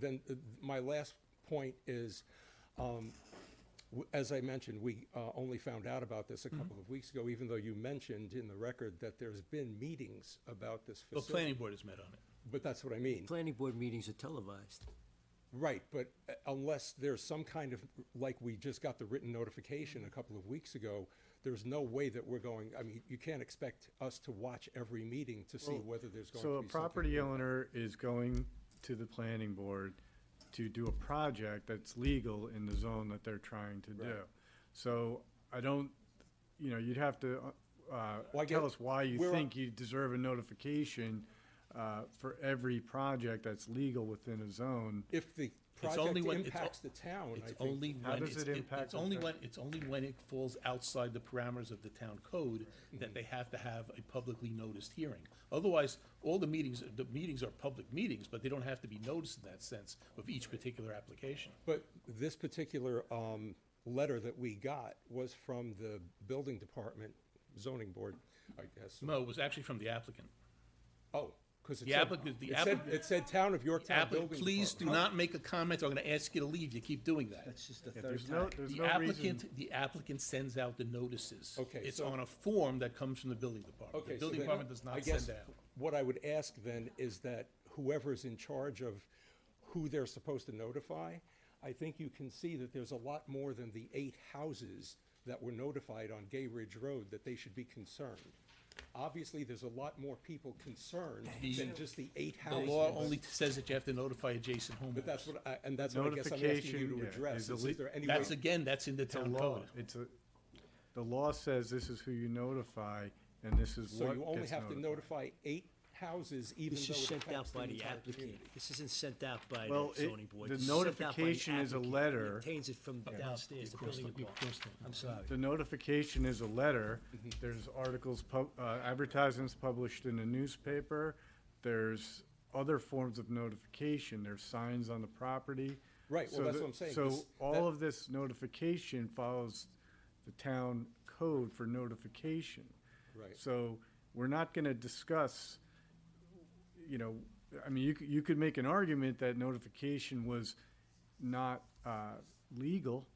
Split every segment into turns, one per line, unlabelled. then uh, my last point is, um, w- as I mentioned, we uh, only found out about this a
Mm-hmm.
couple of weeks ago, even though you mentioned in the record that there's been meetings about this
The
facility.
planning board has met on it.
But that's what I mean.
Planning board meetings are televised.
Right, but uh, unless there's some kind of, like we just got the written notification a
Mm-hmm.
couple of weeks ago, there's no way that we're going, I mean, you can't expect us to watch every meeting to see whether there's going to
So a
be something.
property owner is going to the planning board to do a project that's legal in the zone that they're trying to do. So I don't, you know, you'd have to,
Well, I
uh,
get-
tell us why you
we're-
think you deserve a notification, uh, for every project that's legal within a zone.
If the
It's only
project
when- it's o-
impacts the town, I
It's
think,
only
How
when,
does
it's,
it
it-
impact
it's only
the-
when, it's only when it falls outside the parameters of the town code that
Mm-hmm.
they have to have a publicly noticed hearing. Otherwise, all the meetings, the meetings are public meetings, but they don't have to be noticed in that sense of each particular application.
but this particular, um, letter that we got was from the building department, zoning board, I guess.
No, it was actually from the applicant.
Oh, because it
The
said,
applicant- the
it said,
applicant-
it said town of Yorktown
Applicant,
Building
please do
Department.
not make a comment, or I'm gonna ask you to leave, you keep doing that.
That's just the
Yeah,
third
There's no,
time.
there's
The
no reason.
applicant, the applicant sends out the notices.
Okay,
It's
so-
on a form that comes from the building department.
Okay,
The
so
building
then,
department does
I
not
guess
send out.
What I would ask then is that whoever's in charge of who they're supposed to notify, I think you can see that there's a lot more than the eight houses that were notified on Gay Ridge Road that they should be concerned. Obviously, there's a lot more people concerned than just the eight
The
houses.
law only says that you have to notify adjacent
But that's
homeowners.
what, I- and that's what I guess I'm asking you
Notification,
to
yeah,
address,
is a
is
le-
is there any way?
That's, again, that's in the
It's a
town
law.
code.
It's a, the law says this is who you notify, and this is
So
what
you only
gets
have to
notified.
notify eight houses, even
This
though
is
it
sent out
affects the
by the
entire
applicant.
community.
This isn't sent out by
Well,
the
it-
zoning board.
the
This is sent out by the
notification is a
applicant.
letter.
It Obtains it from downstairs, the building department. I'm sorry.
The notification is a letter.
Mm-hmm.
There's articles, pub- uh, advertisements published in the newspaper. There's other forms of notification. There's signs on the property.
Right, well,
So
that's
the-
what I'm saying.
So
This-
all of this notification follows the town code for notification.
Right.
So we're not going to discuss, you know, I mean, you could, you could make an argument that notification was not uh, legal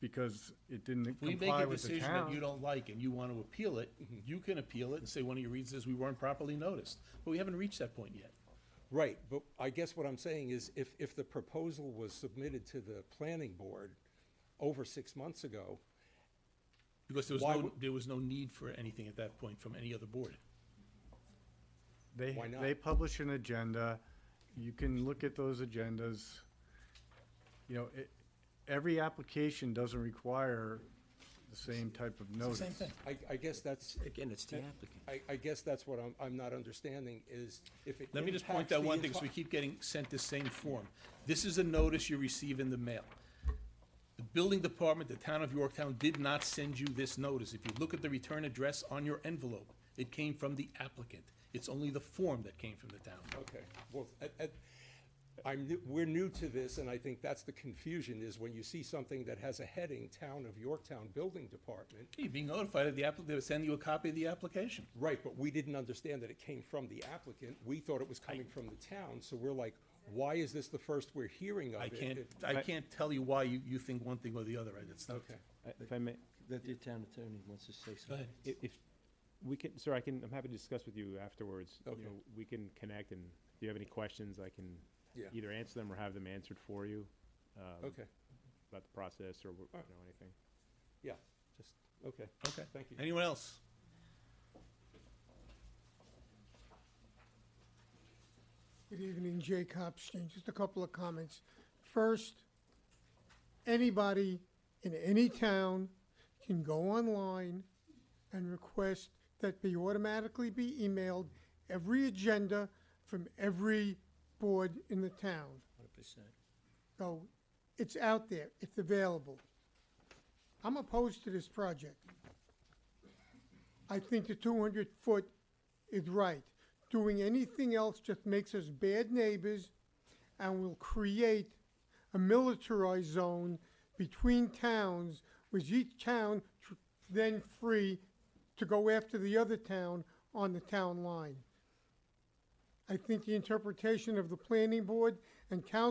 because it didn't
If we make
comply
a
with the
decision that you
town.
don't like and you want to appeal it,
Mm-hmm.
you can appeal it and say one of your reasons is we weren't properly noticed. But we haven't reached that point yet.
Right, but I guess what I'm saying is if, if the proposal was submitted to the planning board over six months ago,
Because there was
Why
no,
would-
there was no need for anything at that point from any other board.
They,
Why not?
they publish an agenda. You can look at those agendas. You know, it, every application doesn't require the same type of notice.
Same thing.
I, I guess that's,
Again, it's the applicant.
I, I guess that's what I'm, I'm not understanding is if it
Let me just point
impacts
out
the
one thing, because
enti-
we keep getting sent this same form. This is a notice you receive in the mail. The building department, the town of Yorktown, did not send you this notice. If you look at the return address on your envelope, it came from the applicant. It's only the form that came from the town.
Okay, well, at, at, I'm, new- we're new to this and I think that's the confusion is when you see something that has a heading, Town of Yorktown Building Department.
You're being notified of the applicant, they were sending you a copy of the application.
Right, but we didn't understand that it came from the applicant. We thought it was coming from the town, so we're like, why is this the first we're hearing of
I
it?
can't,
It-
I can't tell you why you, you think one thing or the other, right? It's not.
Okay.
If I may,
That the town attorney wants to say
Go ahead.
i- if, we can, sir, I can, I'm happy to discuss with you afterwards. You
Okay.
know, We can connect and if you have any questions, I can
Yeah.
either answer them or have them answered for you. um,
Okay,
About the process or, wh- you know, anything.
yeah, just, okay.
Okay.
Thank you.
Anyone else?
Good evening, Jay Copstein. Just a couple of comments. First, anybody in any town can go online and request that be automatically be emailed every agenda from every board in the town.
Hundred percent.
So it's out there, it's available. I'm opposed to this project. I think the two hundred foot is right. Doing anything else just makes us bad neighbors and will create a militarized zone between towns, with each town tr- then free to go after the other town on the town line. I think the interpretation of the planning board and council